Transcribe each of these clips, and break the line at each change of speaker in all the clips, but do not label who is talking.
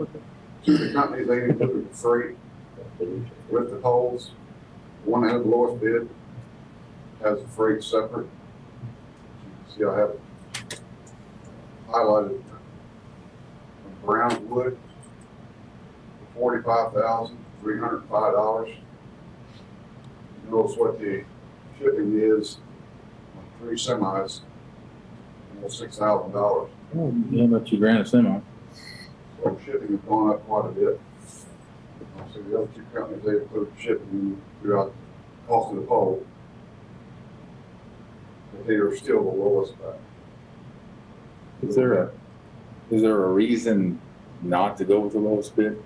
Two of the companies, they included free with the poles. One had the lowest bid, has the freight separate. See, I have highlighted brown wood, forty-five thousand, three hundred and five dollars. Notice what the shipping is on three semis, almost six thousand dollars.
How about you grand a semi?
So shipping has gone up quite a bit. So the other two companies, they put shipping throughout the cost of the pole. But they are still the lowest back.
Is there a, is there a reason not to go with the lowest bid?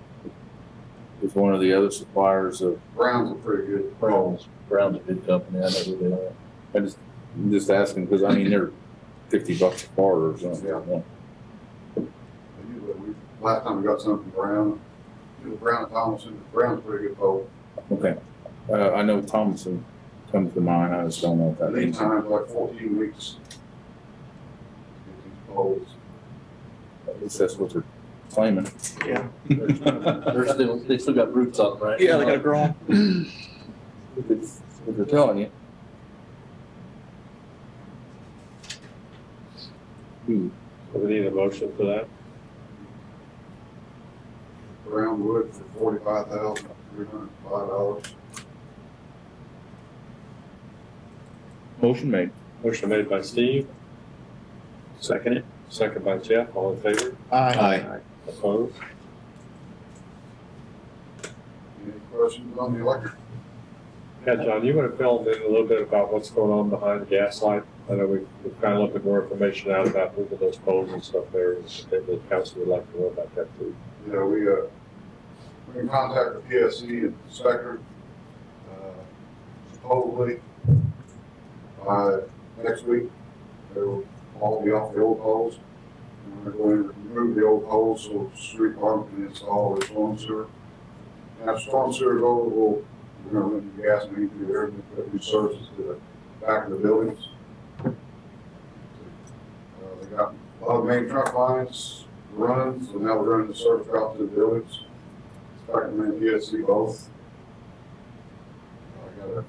With one of the other suppliers of
Brown's a pretty good pole.
Brown's, Brown's a bid company, I know who they are. I just, I'm just asking, because I mean, they're fifty bucks a part or something.
Yeah. Usually we, last time we got something brown, it was Brown and Thompson, Brown's a pretty good pole.
Okay, uh, I know Thompson comes to mind, I just don't know if that
Lead
means.
time's like fourteen weeks. Get these poles.
At least that's what they're claiming.
Yeah.
If
They're still, they still got roots on them, right?
Yeah, they gotta grow 'em.
it's- if they're telling you. Hmm.
We need a motion for that.
Brown wood for forty-five thousand, three hundred and five dollars.
Motion made.
Motion made by Steve. Second it. Second by Jeff, all in favor?
Aye.
Opposed?
Any questions on the electric?
Yeah, John, you want to fill in a little bit about what's going on behind the gas light? I know we- we're kind of looking more information out about moving those poles and stuff there, and the council would like to know about that too.
You know, we, uh, we can contact the PSC inspector, uh, supposedly, by next week, they'll all be off the old poles. And we're going to remove the old poles, so the street department can install their storm sewer. And if storm sewer is over, we'll, we're gonna run the gas main through there, and put new services to the back of the buildings. Uh, they got a lot of main truck lines, runs, and now we're running the service route to the village. Starting in PSC both. I got a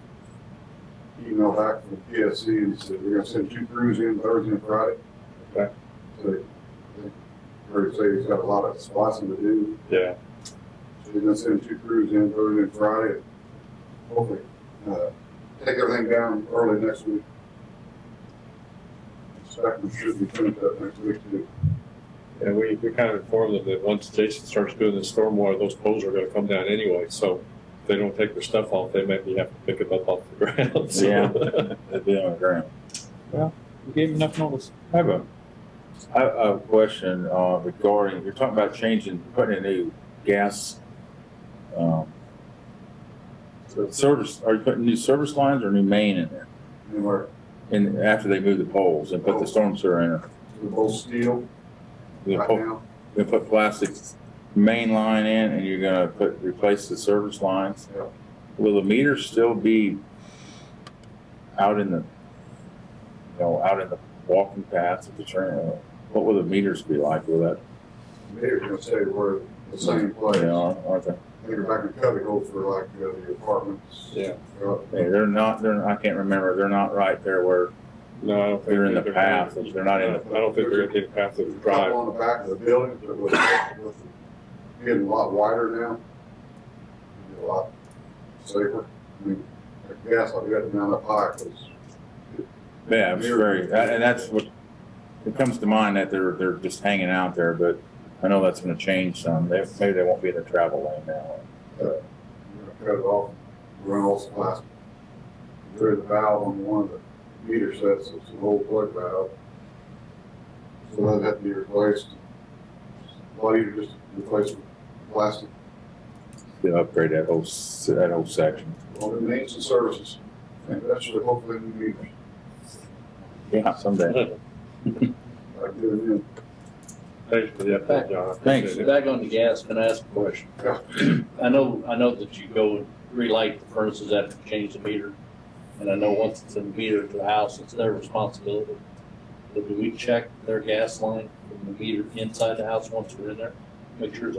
email back from PSC and said, we're gonna send two crews in Thursday and Friday.
Okay.
So they, they, heard say he's got a lot of splicing to do,
Yeah,
so they're gonna send two crews in Thursday and Friday. Hopefully, uh, take everything down early next week. Inspector should be finished up next week too.
and we, we kind of informed them that once Jason starts doing the stormwater, those poles are going to come down anyway, so if they don't take their stuff off, they maybe have to pick it up off the ground. so.
Yeah. It'd be on the ground.
We gave him enough notice.
I have a, I have a question uh, regarding, you're talking about changing, putting a new gas, um, so service, are you putting new service lines or new main in there?
Anywhere
And after they move the poles and put the storm sewer in, it,
They're both steel
you
right
put,
now.
you put plastic main line in and you're gonna put, replace the service lines?
Yeah.
Will the meter still be out in the, you know, out in the walking paths of the train? What will the meters be like? Will that
They're gonna say we're the same place.
They
They
are, aren't they?
were back in Cubby Hole for like uh, the apartments.
Yeah.
They're up
They- They're not, they're, I can't remember, they're not right there where
No, I don't think.
they're in the
they're-
path, they're not in the,
I don't think they're gonna take the path of the
up
drive.
On the back of the building, but with, with getting a lot wider now. it'll be A lot safer. I mean, I guess I've got it down up high, cause
yeah, it's very, that- and that's what, it comes to mind that they're, they're just hanging out there, but I know that's gonna change some, they, maybe they won't be in the travel lane now.
we're gonna cut it off, run all the plastic. There's a valve on one of the meter sets, it's an old plug valve. So that'd have to be replaced. A lot easier just to replace with plastic,
They upgrade that whole, s- that whole section.
all the maintenance and services. And that should hopefully be meters,
Yeah, someday.
like doing
Thanks for the update, John. I
Thanks.
appreciate it.
Back on the gas, can I ask a question?
Yeah.
I know, I know that you go and relight the furnaces after you change the meter, and I know once it's in the meter to the house, it's their responsibility. But do we check their gas line from the meter inside the house once we're in there? make sure it's